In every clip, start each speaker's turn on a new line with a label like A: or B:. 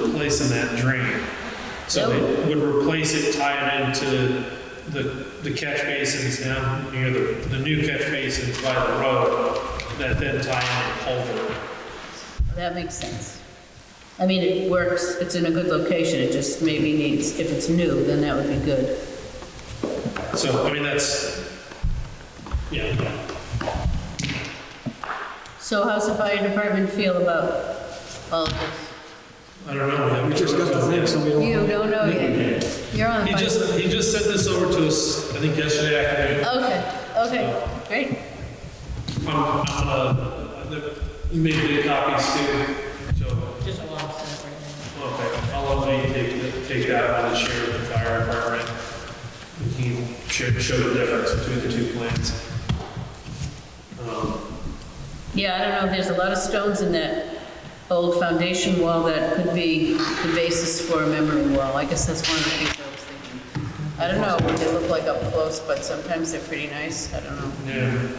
A: replacing that drain. So they would replace it, tie it into the, the catch basins down near the, the new catch basins by the road that then tie in the culvert.
B: That makes sense. I mean, it works, it's in a good location, it just maybe needs, if it's new, then that would be good.
A: So, I mean, that's, yeah.
B: So how's the fire department feel about all this?
A: I don't know.
C: We just got the thing, so we don't.
B: You don't know yet. You're on
A: He
B: fire.
A: just, he just sent this over to us, I think yesterday afternoon.
B: Okay, okay, great.
A: I'm, I'm, uh, the- you made the copies too, so,
D: Just a lot of stuff right now.
A: okay. I'll let you take, take that out and share with the fire department. We can show, show the difference between the two plans. Um,
B: Yeah, I don't know, there's a lot of stones in that old foundation wall that could be the basis for a memory wall. I guess that's one of the things I was thinking. I don't know what they look like up close, but sometimes they're pretty nice, I don't know.
A: Yeah.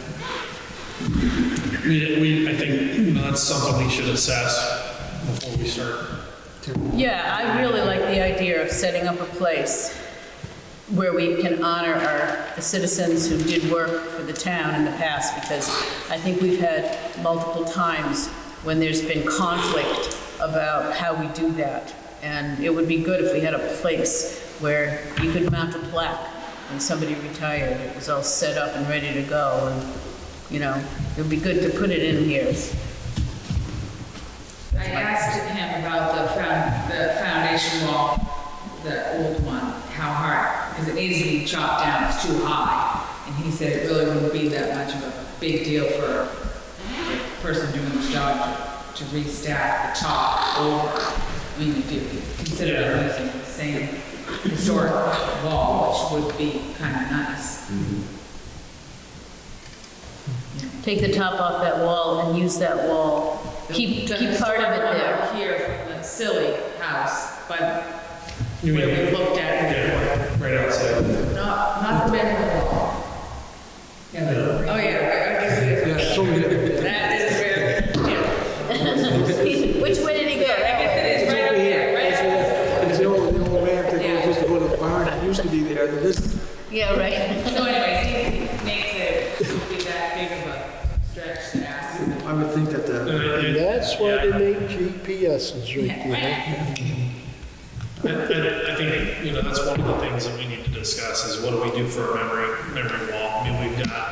A: We, we, I think you know, that's something we should assess before we start.
B: Yeah, I really like the idea of setting up a place where we can honor our, the citizens who did work for the town in the past, because I think we've had multiple times when there's been conflict about how we do that. And it would be good if we had a place where you could mount a plaque when somebody retired, it was all set up and ready to go, and, you know, it would be good to put it in here.
D: I asked him about the found, the foundation wall, the old one, how hard, because it needs to be chopped down, it's too high. And he said it really wouldn't be that much of a big deal for a person doing his job to to restack the top over. I mean, if you consider using the same historic wall, which would be kind of nice.
B: Take the top off that wall and use that wall. Keep,
D: The
B: keep part of it
D: historic one
B: there.
D: up Here, the silly house, but
A: You
D: where
A: mean-
D: we looked at it.
A: Yeah, right outside.
D: Not, not the bedroom wall. Yeah, the- oh yeah, I I guess it is.
C: Yeah, so we gotta get the-
D: That is where, yeah,
B: Which way did he go?
D: I guess it is
C: It's
D: right
C: over
D: up
C: here.
D: there, right
C: It's
D: up
C: the- It's the old, the old ramp that goes, used to go to the barn, it used to be there, and this,
B: Yeah, right.
D: So anyways, he he makes it, it be that big of a stretch to ask. him.
C: I would think that the,
E: And
A: I,
E: that's why they make GPSs right there.
A: I- I think, you know, that's one of the things that we need to discuss is what do we do for a memory, memory wall? I mean, we've got,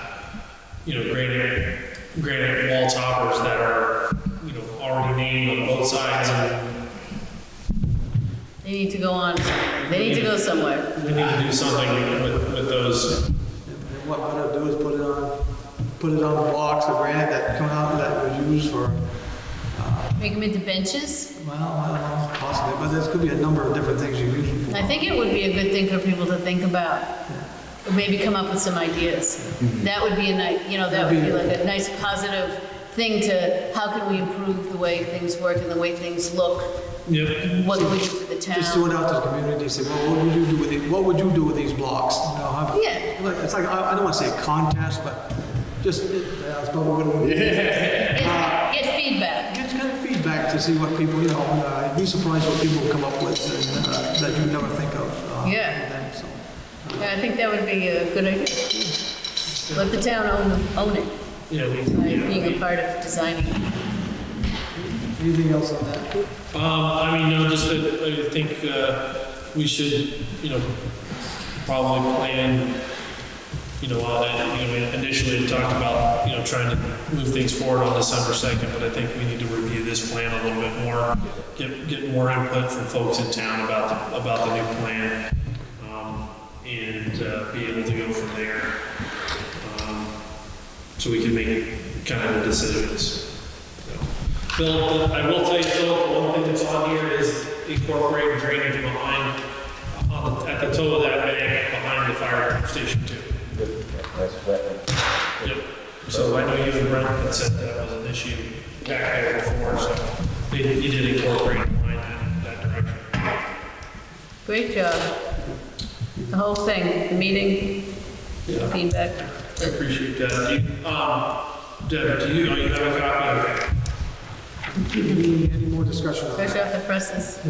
A: you know, granite, granite wall toppers that are, you know, already named on both sides and
B: They need to go on, they need to go somewhere.
A: we need to do something with, with those.
C: and what I'd do is put it on, put it on blocks of granite that come out that was used for,
B: Make them into benches.
C: well, I don't know, possibly, but there's could be a number of different things you use it for.
B: I think it would be a good thing for people to think about. Or Maybe come up with some ideas. That would be a nice, you know, that would be like a nice positive thing to, how can we improve the way things work and the way things look?
A: Yep.
B: What do we do for the
C: Just throw
B: town?
C: it out to the community, say, well, what would you do with it, what would you do with these blocks? You know, have-
B: Yeah.
C: Like, it's like, I, I don't wanna say a contest, but just, yeah, it's probably what it would be.
B: Get get feedback.
C: It's kind of feedback to see what people, you know, uh, you'd be surprised what people come up with and, uh, that you never think of. uh,
B: Yeah.
C: them, so.
B: Yeah, I think that would be a good idea. Let the town own, own it,
A: Yeah, we,
B: by
A: yeah, we-
B: being a part of designing. it.
C: Anything else on that?
A: Um, I mean, no, just that I think, uh, we should, you know, probably plan, you know, on that, you know, we initially had talked about, you know, trying to move things forward on December second, but I think we need to review this plan a little bit more, get, get more input from folks in town about the, about the new plan, um, and, uh, be able to go from there. um, So we can make kind of the decisions. So. Phil, I will tell you, Phil, the one thing that's on here is incorporating drainage behind, on the- at the toe of that bank, behind the fire station too.
F: That's wet.
A: Yep. So I know you and Brent had said that was an issue back there before, so they- you did incorporate behind that, that direction.
B: Great job. The whole thing, the meeting,
A: Yeah.
B: feedback.
A: I appreciate that. Do you- Um, Deb, do you, oh, you have a copy of that?
C: Any more discussion on that?
B: Fresh off the presses.